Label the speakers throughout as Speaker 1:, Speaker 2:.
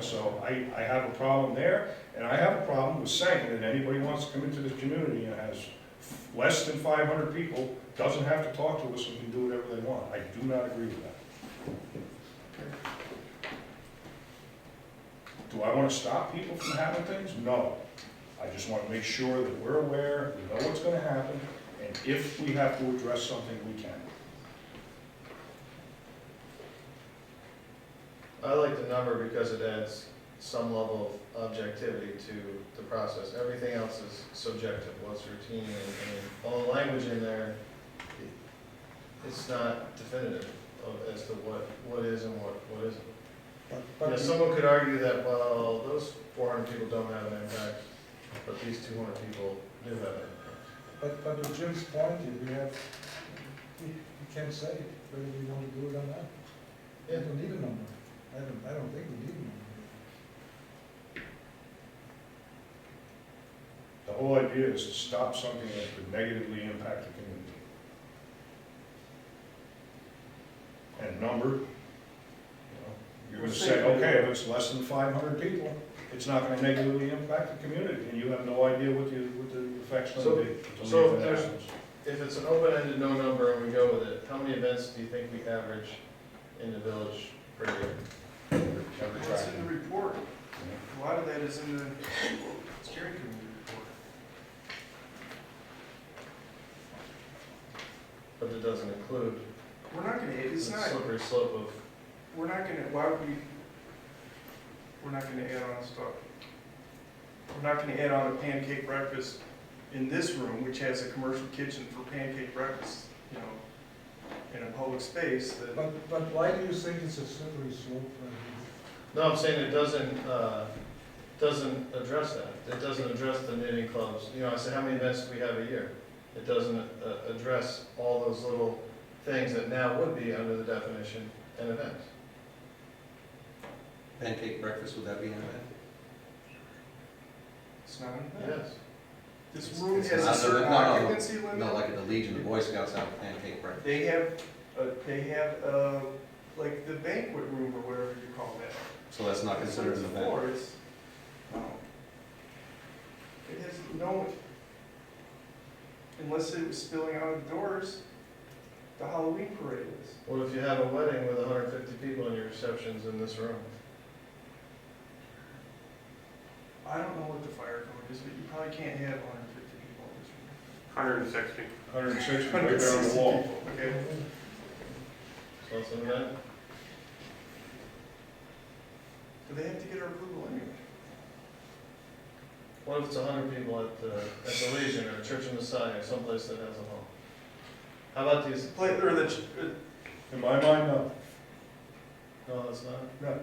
Speaker 1: so I, I have a problem there, and I have a problem with saying that anybody who wants to come into this community and has less than five hundred people, doesn't have to talk to us and can do whatever they want. I do not agree with that. Do I wanna stop people from having things? No. I just wanna make sure that we're aware, we know what's gonna happen, and if we have to address something, we can.
Speaker 2: I like the number because it adds some level of objectivity to the process. Everything else is subjective, what's routine, and, and all the language in there, it- it's not definitive of, as to what, what is and what, what isn't. You
Speaker 3: But-
Speaker 2: know,
Speaker 3: But, the-
Speaker 2: someone could argue that, well, those four hundred people don't have an impact, but these two hundred people do have an impact.
Speaker 3: but, but to Jim's point, if we have, we we can't say whether we want to do it or not. We
Speaker 2: Yeah.
Speaker 3: don't need a number. I don't, I don't think we need a number.
Speaker 1: The whole idea is to stop something that could negatively impact the community. And number, you know, you're gonna say, okay, if it's less than five hundred people, it's not gonna negatively impact the community, and you have no idea what the, what the effect's gonna be. until
Speaker 2: so
Speaker 1: the event
Speaker 2: there's-
Speaker 1: happens.
Speaker 2: If it's an open-ended no number and we go with it, how many events do you think we average in the village per year?
Speaker 1: Every
Speaker 4: That's in the
Speaker 1: tracking.
Speaker 4: report. A lot of that is in the steering committee report.
Speaker 2: But it doesn't include
Speaker 4: We're not gonna,
Speaker 2: the
Speaker 4: it's not,
Speaker 2: slippery slope of,
Speaker 4: we're not gonna, why would we, we're not gonna add on stuff. We're not gonna add on a pancake breakfast in this room, which has a commercial kitchen for pancake breakfast, you know, in a public space that,
Speaker 3: But, but why do you think it's a slippery slope?
Speaker 2: no, I'm saying it doesn't, uh, doesn't address that. It doesn't address the knitting clubs. You know, I said, how many events do we have a year? It doesn't, uh, address all those little things that now would be under the definition an event.
Speaker 5: Pancake breakfast, would that be an event?
Speaker 4: it's not in there.
Speaker 2: Yes.
Speaker 4: This room
Speaker 5: It's
Speaker 4: has a
Speaker 5: not-
Speaker 4: certain
Speaker 5: no, no, no.
Speaker 4: occupancy limit.
Speaker 5: No, like at the Legion, the Boy Scouts have a pancake breakfast.
Speaker 4: They have, uh, they have, uh, like the banquet room or whatever you call that.
Speaker 5: So that's not considered an event.
Speaker 4: Floor is- It has no, unless it was spilling out of the doors, the Halloween parade is.
Speaker 2: What if you have a wedding with hundred and fifty people and your reception's in this room?
Speaker 4: I don't know what the fire code is, but you probably can't have hundred and fifty people in this room.
Speaker 6: Hundred and sixty.
Speaker 1: 160 right there on the wall.
Speaker 4: 160 people, Okay,
Speaker 2: So it's an event?
Speaker 4: do they have to get our approval anyway?
Speaker 2: What if it's hundred people at the, at the Legion or Church on the Side or someplace that has a hall? How about these?
Speaker 4: Play, or the, ch- uh,
Speaker 1: In my mind, no,
Speaker 2: No, that's not.
Speaker 1: no.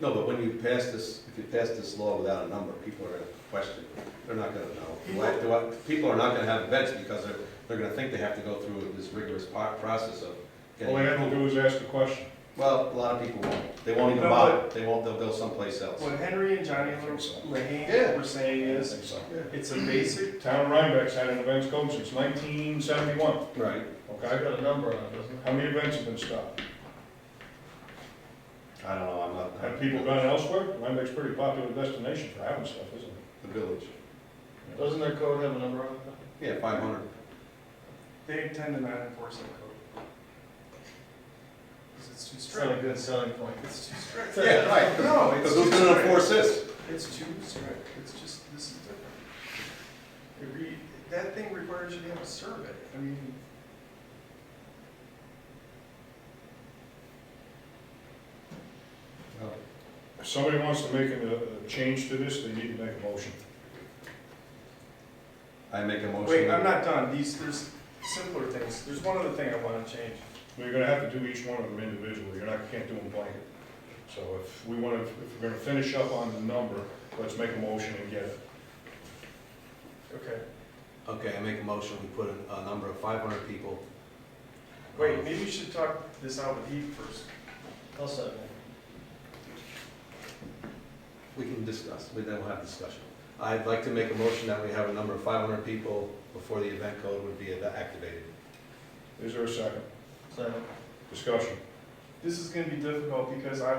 Speaker 5: No, but when you pass this, if you pass this law without a number, people are gonna question, they're not gonna know. Do I- do I- people are not gonna have events because they're, they're gonna think they have to go through this rigorous po- process of
Speaker 1: All they have to
Speaker 5: getting.
Speaker 1: do is ask the question.
Speaker 5: Well, a lot of people won't, they won't even
Speaker 4: No,
Speaker 5: bother, they won't, they'll go someplace else.
Speaker 4: what Henry and Johnny
Speaker 5: Yeah.
Speaker 4: Lehane were saying
Speaker 1: I
Speaker 4: is,
Speaker 1: think so.
Speaker 4: it's a basic,
Speaker 1: Town of Rhinebeck's had an events code since 1971,
Speaker 5: Right,
Speaker 2: I've
Speaker 1: okay?
Speaker 2: got a number on it, doesn't it?
Speaker 1: How many events have been stopped?
Speaker 5: I don't know, I'm not.
Speaker 1: Have people gone elsewhere? Rhinebeck's a pretty popular destination for having stuff, isn't it?
Speaker 5: The village,
Speaker 2: Doesn't their code have a number on it?
Speaker 5: yeah, five hundred.
Speaker 4: they tend to not enforce that code. Because it's too
Speaker 2: It's not a
Speaker 4: strict,
Speaker 2: good selling point.
Speaker 4: it's too strict.
Speaker 5: Yeah, right.
Speaker 4: No, it's
Speaker 5: Because
Speaker 4: too
Speaker 5: who's gonna
Speaker 4: strict.
Speaker 5: enforce this?
Speaker 4: It's too strict, it's just, this is different. It re, that thing requires you to have a survey, I mean.
Speaker 1: If somebody wants to make a, a change to this, they need to make a motion.
Speaker 5: I make a motion.
Speaker 4: Wait, I'm
Speaker 5: that-
Speaker 4: not done, these, there's simpler things, there's one other thing I wanna change.
Speaker 1: You're gonna have to do each one of them individually, you're not, can't do them blanket. So if we wanna, if we're gonna finish up on the number, let's make a motion and get it.
Speaker 4: Okay,
Speaker 5: Okay, I make a motion, we put a, a number of five hundred people.
Speaker 4: wait, maybe you should talk this out with Heath first.
Speaker 2: I'll second.
Speaker 5: We can discuss, we then we'll have discussion. I'd like to make a motion that we have a number of five hundred people before the event code would be activated.
Speaker 1: Is there a second?
Speaker 2: Second.
Speaker 1: Discussion.
Speaker 4: This is gonna be difficult because I